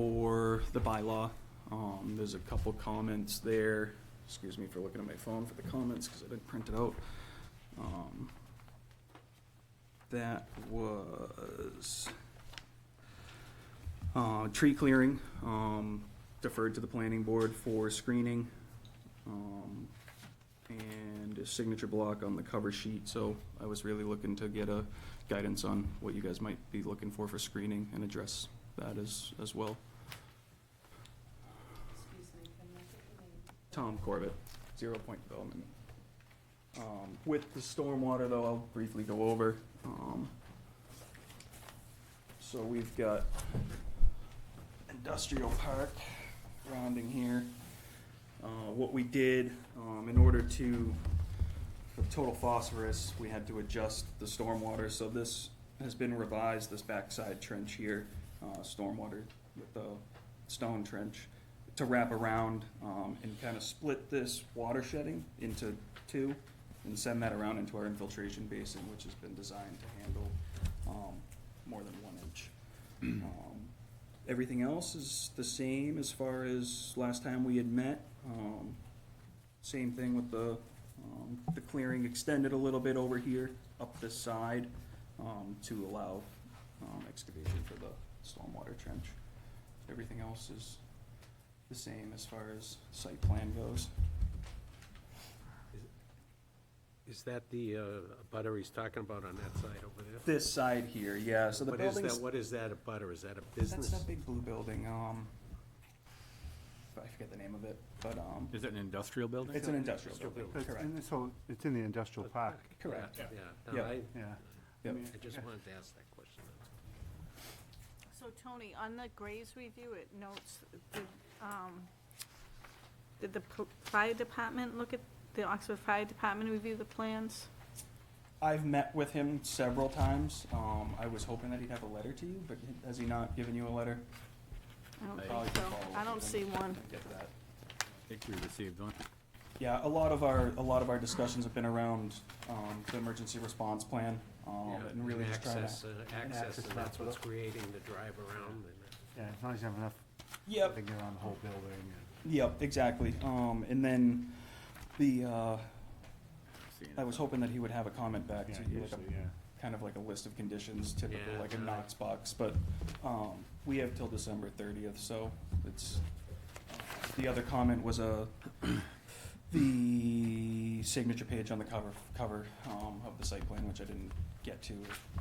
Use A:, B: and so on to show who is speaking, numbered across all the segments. A: for the bylaw. Um, there's a couple comments there. Excuse me for looking at my phone for the comments, because I didn't print it out. Um, That was, uh, tree clearing, um, deferred to the planning board for screening. Um, and a signature block on the cover sheet, so I was really looking to get a guidance on what you guys might be looking for for screening and address that as, as well.
B: Excuse me, can I get your name?
A: Tom Corbett, Zero Point Development. Um, with the stormwater though, I'll briefly go over, um, so we've got industrial park rounding here. Uh, what we did, um, in order to, for total phosphorus, we had to adjust the stormwater, so this has been revised, this backside trench here, uh, stormwater with the stone trench, to wrap around, um, and kind of split this water shedding into two, and send that around into our infiltration basin, which has been designed to handle, um, more than one inch. Um, Everything else is the same as far as last time we had met. Um, Same thing with the, um, the clearing extended a little bit over here, up the side, um, to allow um, excavation for the stormwater trench. Everything else is the same as far as site plan goes.
C: Is that the uh, butter he's talking about on that side over there?
A: This side here, yeah, so the
C: What is
A: building's.
C: that, what is that, a butter, is that a
A: That's
C: business?
A: that big blue building, um, I forget the name of it, but, um,
D: Is it an industrial building?
A: it's an industrial building,
C: building.
E: It's
A: correct,
E: in- So it's in the industrial park,
A: correct.
C: Yeah,
A: Yeah.
C: no, I,
E: yeah.
A: Yep.
C: I just wanted to ask that question.
B: So Tony, on the Graves review, it notes, did, um, did the pl- fire department look at, the Oxford Fire Department review the plans?
A: I've met with him several times. Um, I was hoping that he'd have a letter to you, but has he not given you a letter?
B: I don't
D: I-
A: Probably
B: think
A: should
B: so.
A: follow up
B: I
A: with
B: don't see
A: him
B: one.
A: and Get that.
D: I think we received one.
A: Yeah, a lot of our, a lot of our discussions have been around, um, the emergency response plan, um,
C: Yeah,
A: and really just trying
C: Access,
A: to.
C: uh,
E: and
C: access,
E: access
C: and that's
E: map.
C: what's creating the drive around and. uh,
E: Yeah, as long as you have enough, I
A: Yep,
E: think around the whole building. and-
A: yep, exactly. Um, and then the, uh, I was hoping that he would have a comment back
E: Yeah,
A: to you, like a
E: usually, yeah.
A: kind of like a list of conditions, typical,
C: Yeah,
A: like a
C: no.
A: Knox box, but, um, we have till December thirtieth, so it's, the other comment was, uh, the signature page on the cover, cover, um, of the site plan, which I didn't get to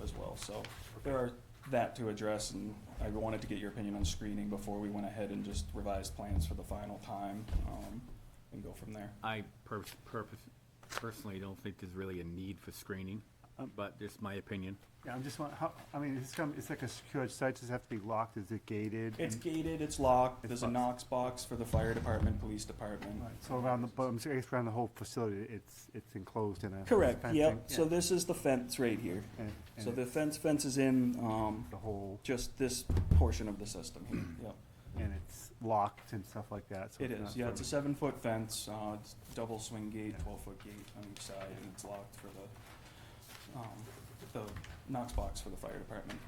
A: as well, so there are that to address, and I wanted to get your opinion on screening before we went ahead and just revised plans for the final time, um, and go from there.
D: I per- purpose, personally don't think there's really a need for screening,
A: Um.
D: but just my opinion.
E: Yeah, I'm just wondering, how, I mean, it's come, it's like a secured site, does it have to be locked, is it gated?
A: It's
E: And-
A: gated, it's locked,
E: It's
A: there's a
E: locked.
A: Knox box for the fire department, police department.
E: Right, So around the, but I'm saying it's around the whole facility, it's, it's enclosed in a.
A: Correct,
E: fencing,
A: yep, so this is the fence right here.
E: And,
A: So
E: and
A: the
E: it's
A: fence, fence is in, um,
E: the whole,
A: just this portion of the system here, yep.
E: and it's locked and stuff like that, so.
A: It
E: it's
A: is,
E: not
A: yeah, it's a
E: sort
A: seven-foot fence, uh, it's double swing gate,
E: Yeah.
A: twelve-foot gate on each side, and it's locked for the, um, the Knox box for the fire department.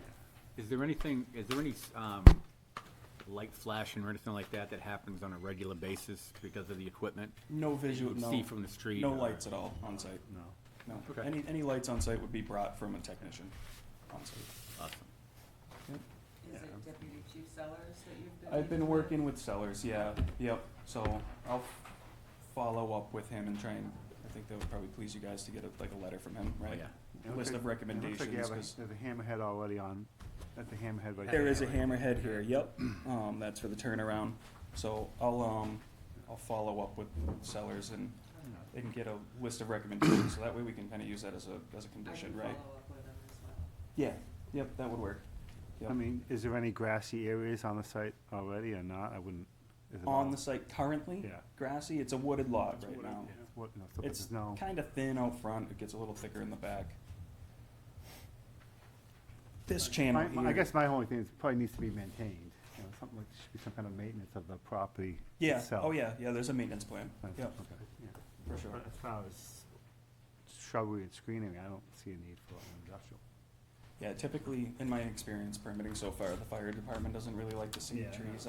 D: Is there anything, is there any, um, light flashing or anything like that that happens on a regular basis because of the equipment?
A: No visual,
D: You See
A: no,
D: from the street?
A: no
D: or-
A: lights at all on site,
E: of- No.
A: no.
D: Okay.
A: Any, any lights on site would be brought from a technician on site.
D: Awesome.
F: Is it Deputy Chief Sellers that you've been?
A: I've been
F: meeting with?
A: working with Sellers, yeah, yep, so I'll f- follow up with him and try and, I think that would probably please you guys to get a, like a letter from him,
D: Oh,
A: right?
D: yeah.
E: It looks
A: List
E: like-
A: of recommendations,
E: It looks like you have a-
A: 'cause
E: there's a hammerhead already on, at the hammerhead right
A: there is a hammerhead here, yep, um, that's for the turnaround. So I'll, um, I'll follow up with Sellers and they can get a list of recommendations, so that way we can kinda use that as a, as a condition,
F: I
A: right?
F: can follow up with them as well.
A: Yeah, yep, that would work.
E: I mean, is there any grassy areas on the site already or not? I wouldn't. is it all-
A: On the site currently,
E: Yeah.
A: grassy, it's a wooded lot right now.
E: It's What, no, so
A: It's
E: there's no,
A: kind of thin out front, it gets a little thicker in the back. This channel
E: my, my- I
A: here,
E: guess my only thing is it probably needs to be maintained, you know, something like, should be some kind of maintenance of the property
A: yeah,
E: itself.
A: oh yeah, yeah, there's a maintenance plan,
E: That's-
A: yeah,
E: okay, yeah.
A: for sure.
E: But As far as shrubbery and screening, I don't see a need for an industrial.
A: Yeah, typically, in my experience permitting so far, the fire department doesn't really like to see
E: Yeah, I know.
A: trees